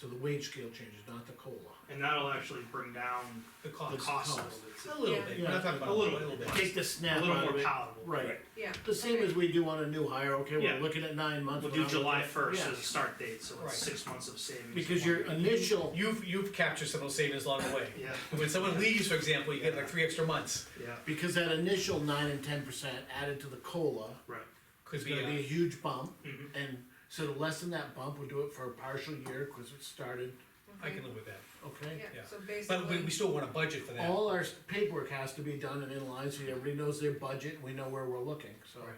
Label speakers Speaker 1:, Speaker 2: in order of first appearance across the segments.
Speaker 1: So the wage scale changes, not the COLA.
Speaker 2: and that'll actually bring down
Speaker 3: The
Speaker 2: the
Speaker 3: cost.
Speaker 2: cost a
Speaker 1: cost.
Speaker 2: little bit.
Speaker 3: A little
Speaker 4: Yeah.
Speaker 3: bit, we're not talking about
Speaker 2: A
Speaker 3: a
Speaker 2: little
Speaker 3: little bit.
Speaker 1: Take the snap
Speaker 2: A little
Speaker 1: out
Speaker 2: more
Speaker 1: of it.
Speaker 2: palatable.
Speaker 1: Right,
Speaker 4: yeah.
Speaker 1: the same
Speaker 4: okay.
Speaker 1: as we do on a new hire, okay,
Speaker 2: Yeah.
Speaker 1: we're looking at nine months.
Speaker 2: We'll
Speaker 1: we're
Speaker 2: do
Speaker 1: not
Speaker 2: July
Speaker 1: looking at-
Speaker 2: first
Speaker 1: yeah.
Speaker 2: as a start date, so
Speaker 3: Right.
Speaker 2: it's six months of savings.
Speaker 1: Because your initial,
Speaker 3: You've, you've captured some of those savings along the way.
Speaker 2: Yeah,
Speaker 3: When someone leaves, for example, you get like three extra months,
Speaker 2: yeah,
Speaker 1: because that initial nine and ten percent added to the COLA
Speaker 2: right,
Speaker 3: could
Speaker 1: is
Speaker 3: be,
Speaker 1: gonna be a
Speaker 3: uh,
Speaker 1: huge bump.
Speaker 2: Mhm.
Speaker 1: And so to lessen that bump, we'll do it for a partial year, cause it started,
Speaker 3: I
Speaker 4: Okay.
Speaker 3: can live with that,
Speaker 1: okay?
Speaker 4: Yeah,
Speaker 3: yeah.
Speaker 4: so
Speaker 3: but we, we
Speaker 4: basically,
Speaker 3: still want a budget for that.
Speaker 1: All our s- paperwork has to be done and in line, so everybody knows their budget, and we know where we're looking, so.
Speaker 3: Right.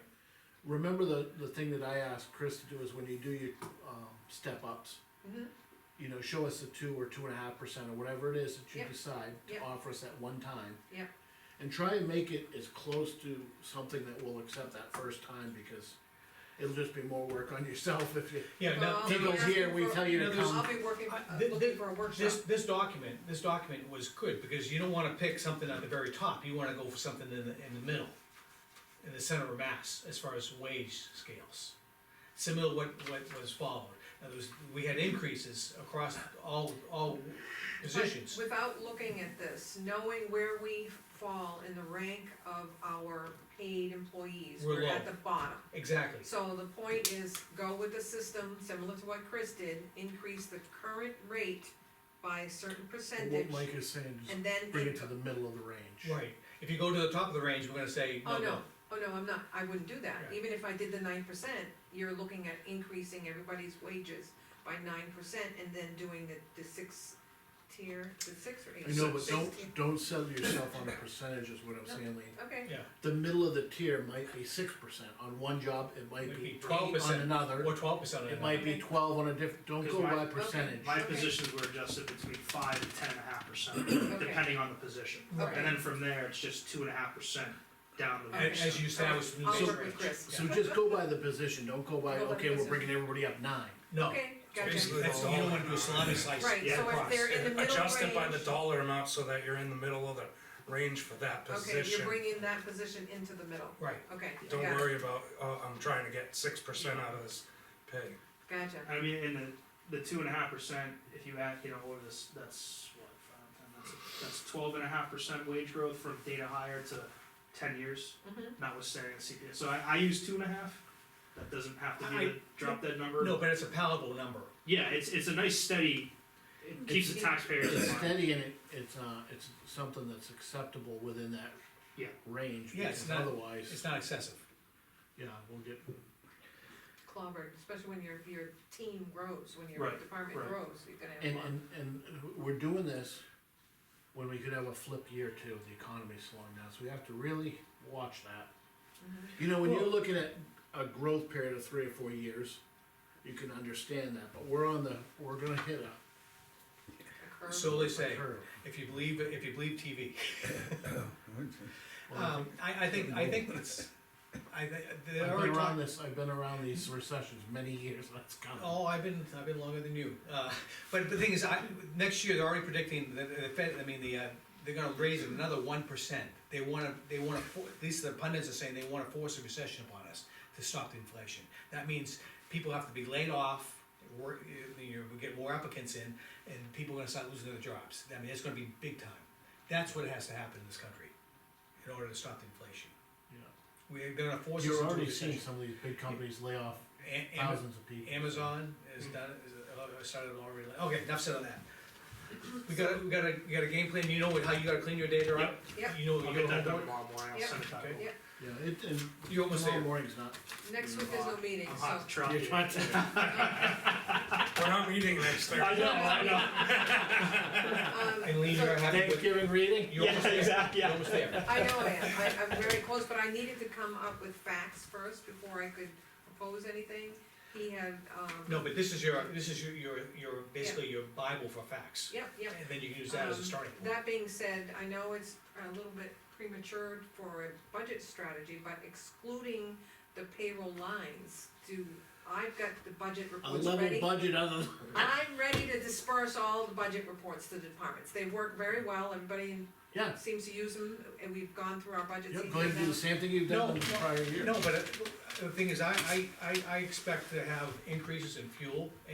Speaker 1: Remember the, the thing that I asked Chris to do is when you do your, um, step ups.
Speaker 4: Mhm.
Speaker 1: You know, show us the two or two and a half percent or whatever it is that you
Speaker 4: Yep.
Speaker 1: decide to
Speaker 4: Yep.
Speaker 1: offer us at one time.
Speaker 4: Yep.
Speaker 1: And try and make it as close to something that we'll accept that first time, because it'll just be more work on yourself if you.
Speaker 3: Yeah, now,
Speaker 4: Well,
Speaker 1: He goes here, we tell
Speaker 3: You
Speaker 1: you to
Speaker 3: know, there's-
Speaker 1: come,
Speaker 4: I'll be working,
Speaker 3: I-
Speaker 4: uh,
Speaker 3: thi-
Speaker 4: looking
Speaker 3: thi-
Speaker 4: for a workshop.
Speaker 3: this, this document, this document was good, because you don't wanna pick something at the very top, you wanna go for something in the, in the middle. In the center of mass, as far as wage scales, similar to what, what was followed, Now, there was, we had increases across all, all
Speaker 4: But
Speaker 3: positions.
Speaker 4: Without looking at this, knowing where we fall in the rank of our paid employees,
Speaker 3: We're
Speaker 4: we're at
Speaker 3: low.
Speaker 4: the bottom.
Speaker 3: Exactly,
Speaker 4: So the point is, go with the system, similar to what Chris did, increase the current rate by a certain percentage,
Speaker 1: what Mike is saying, just
Speaker 4: and then.
Speaker 1: bring it to the middle of the range.
Speaker 3: right, if you go to the top of the range, we're gonna say,
Speaker 4: Oh,
Speaker 3: no,
Speaker 4: no,
Speaker 3: no,
Speaker 4: oh, no, I'm not, I wouldn't do that,
Speaker 3: Yeah.
Speaker 4: even if I did the nine percent, you're looking at increasing everybody's wages by nine percent, and then doing the, the six tier, the six or eight.
Speaker 1: I know, but
Speaker 4: Six tier.
Speaker 1: don't, don't settle yourself on a percentage is what I'm saying, Lean.
Speaker 4: Okay,
Speaker 3: yeah,
Speaker 1: The middle of the tier might be six percent on one job, it might
Speaker 3: Might be
Speaker 1: be twelve
Speaker 3: 12%
Speaker 1: on another,
Speaker 3: or twelve percent of
Speaker 1: it
Speaker 3: that.
Speaker 1: might be twelve on a different, don't
Speaker 2: Because
Speaker 1: go
Speaker 2: my-
Speaker 1: by
Speaker 2: okay.
Speaker 1: percentage.
Speaker 2: my
Speaker 4: Okay.
Speaker 2: positions were adjusted between five and ten and a half percent, depending on the position.
Speaker 3: Right.
Speaker 2: And then from there, it's just two and a half percent down the.
Speaker 3: As,
Speaker 4: Okay.
Speaker 3: as you established. in the
Speaker 4: I'll
Speaker 1: So-
Speaker 4: work
Speaker 3: range.
Speaker 4: with Chris.
Speaker 1: So just go by the position, don't go by,
Speaker 4: Go by
Speaker 1: okay, we're
Speaker 4: position.
Speaker 1: bringing everybody up nine.
Speaker 3: No,
Speaker 4: Okay,
Speaker 3: So
Speaker 4: gotcha.
Speaker 3: basically, that's, you don't wanna do a salami slice.
Speaker 4: Right,
Speaker 2: Yeah,
Speaker 4: so if
Speaker 3: across.
Speaker 4: they're in the middle range.
Speaker 5: Adjust it by the dollar amount so that you're in the middle of the range for that
Speaker 4: Okay, you're
Speaker 5: position.
Speaker 4: bringing that position into the middle,
Speaker 3: Right,
Speaker 4: okay,
Speaker 5: Don't
Speaker 4: gotcha,
Speaker 5: worry about, oh, I'm trying to get six percent out of this pay.
Speaker 4: gotcha,
Speaker 2: I mean, in the, the two and a half percent, if you add, you know, over this, that's what, five, ten, that's, that's twelve and a half percent wage growth from data hire to ten years,
Speaker 4: Mhm.
Speaker 2: notwithstanding the CPI. So I, I use two and a half, that doesn't have to be
Speaker 3: I-
Speaker 2: the drop dead number.
Speaker 3: no, but it's a palatable number,
Speaker 2: Yeah, it's, it's a nice steady, it keeps the taxpayers
Speaker 1: It's
Speaker 2: in line.
Speaker 1: steady and it, it's, uh, it's something that's acceptable within that
Speaker 2: Yeah.
Speaker 1: range,
Speaker 3: Yeah, it's
Speaker 1: because
Speaker 3: not-
Speaker 1: otherwise,
Speaker 3: it's not excessive.
Speaker 1: yeah, we'll get,
Speaker 4: clobbered, especially when your, your team grows, when your
Speaker 2: Right,
Speaker 4: department
Speaker 2: right.
Speaker 4: grows, you're gonna have a
Speaker 1: and,
Speaker 4: lot.
Speaker 1: and, and we're doing this when we could have a flip year too, the economy's slowing down, so we have to really watch that. You know, when you're looking at a growth period of three or four years, you can understand that, but we're on the, we're gonna hit a-
Speaker 4: a curve.
Speaker 3: So they
Speaker 1: a
Speaker 3: say,
Speaker 1: curve.
Speaker 3: if you believe, if you believe TV.
Speaker 1: Well,
Speaker 3: Um, I, I think, I think it's, I, thi- they
Speaker 1: I've been
Speaker 3: already
Speaker 1: around
Speaker 3: talked,
Speaker 1: this, I've been around these recessions many years, that's coming.
Speaker 3: oh, I've been, I've been longer than you. Uh, but the thing is, I, next year, they're already predicting, the, the Fed, I mean, the, uh, they're gonna raise it another one percent. They wanna, they wanna, for- at least the pundits are saying they wanna force a recession upon us to stop the inflation. That means people have to be laid off, work, you know, we get more applicants in, and people are gonna start losing their jobs. I mean, it's gonna be big time. That's what has to happen in this country, in order to stop the inflation.
Speaker 1: Yeah.
Speaker 3: We're gonna force us
Speaker 1: You're
Speaker 3: into a
Speaker 1: already seeing
Speaker 3: recession.
Speaker 1: some of these big companies lay off
Speaker 3: A- Am-
Speaker 1: thousands of people.
Speaker 3: Amazon has done, it, is, uh, started already, okay, enough said on that. We got, a we got a, we got a game plan, you know what- how you gotta clean your data up?
Speaker 4: Yep.
Speaker 3: You know,
Speaker 2: I'll
Speaker 3: you
Speaker 2: get that
Speaker 3: know,
Speaker 2: done tomorrow morning, I'll
Speaker 4: Yep.
Speaker 2: send it back.
Speaker 3: Okay.
Speaker 2: over.
Speaker 1: Yeah, it, and
Speaker 3: you almost
Speaker 1: tomorrow
Speaker 3: there.
Speaker 1: morning's not.
Speaker 4: Next week there's no meeting,
Speaker 2: I'm
Speaker 4: so,
Speaker 2: hot to trot
Speaker 1: You're
Speaker 2: you.
Speaker 1: trying to-
Speaker 5: We're not meeting next
Speaker 2: I
Speaker 5: Thursday.
Speaker 2: know, I know.
Speaker 4: um,
Speaker 3: And Lean, you're
Speaker 4: so-
Speaker 3: happy with,
Speaker 1: Thanksgiving reading?
Speaker 3: you're almost
Speaker 2: Yeah,
Speaker 3: there,
Speaker 2: exactly,
Speaker 3: you're
Speaker 2: yeah.
Speaker 3: almost there.
Speaker 4: I know I am, I, I'm very close, but I needed to come up with facts first before I could propose anything. He had, um,
Speaker 3: No, but this is your, this is your, your, your, basically your bible for facts,
Speaker 4: yep, yep.
Speaker 3: and then you can use that as a
Speaker 4: Um,
Speaker 3: starting point.
Speaker 4: That being said, I know it's a little bit premature for a budget strategy, but excluding the payroll lines, do, I've got the budget
Speaker 1: A
Speaker 4: reports
Speaker 1: level
Speaker 4: ready.
Speaker 1: budget other than.
Speaker 4: I'm ready to disperse all the budget reports to the departments, they work very well, everybody
Speaker 1: Yeah,
Speaker 4: seems to use them, and we've gone through our budgets.
Speaker 1: yeah,
Speaker 4: each
Speaker 1: go ahead and do
Speaker 4: now.
Speaker 1: the same thing you've
Speaker 3: No,
Speaker 1: done in the
Speaker 3: no,
Speaker 1: prior year.
Speaker 3: No, but uh, the thing is, I, I, I, I expect to have increases in fuel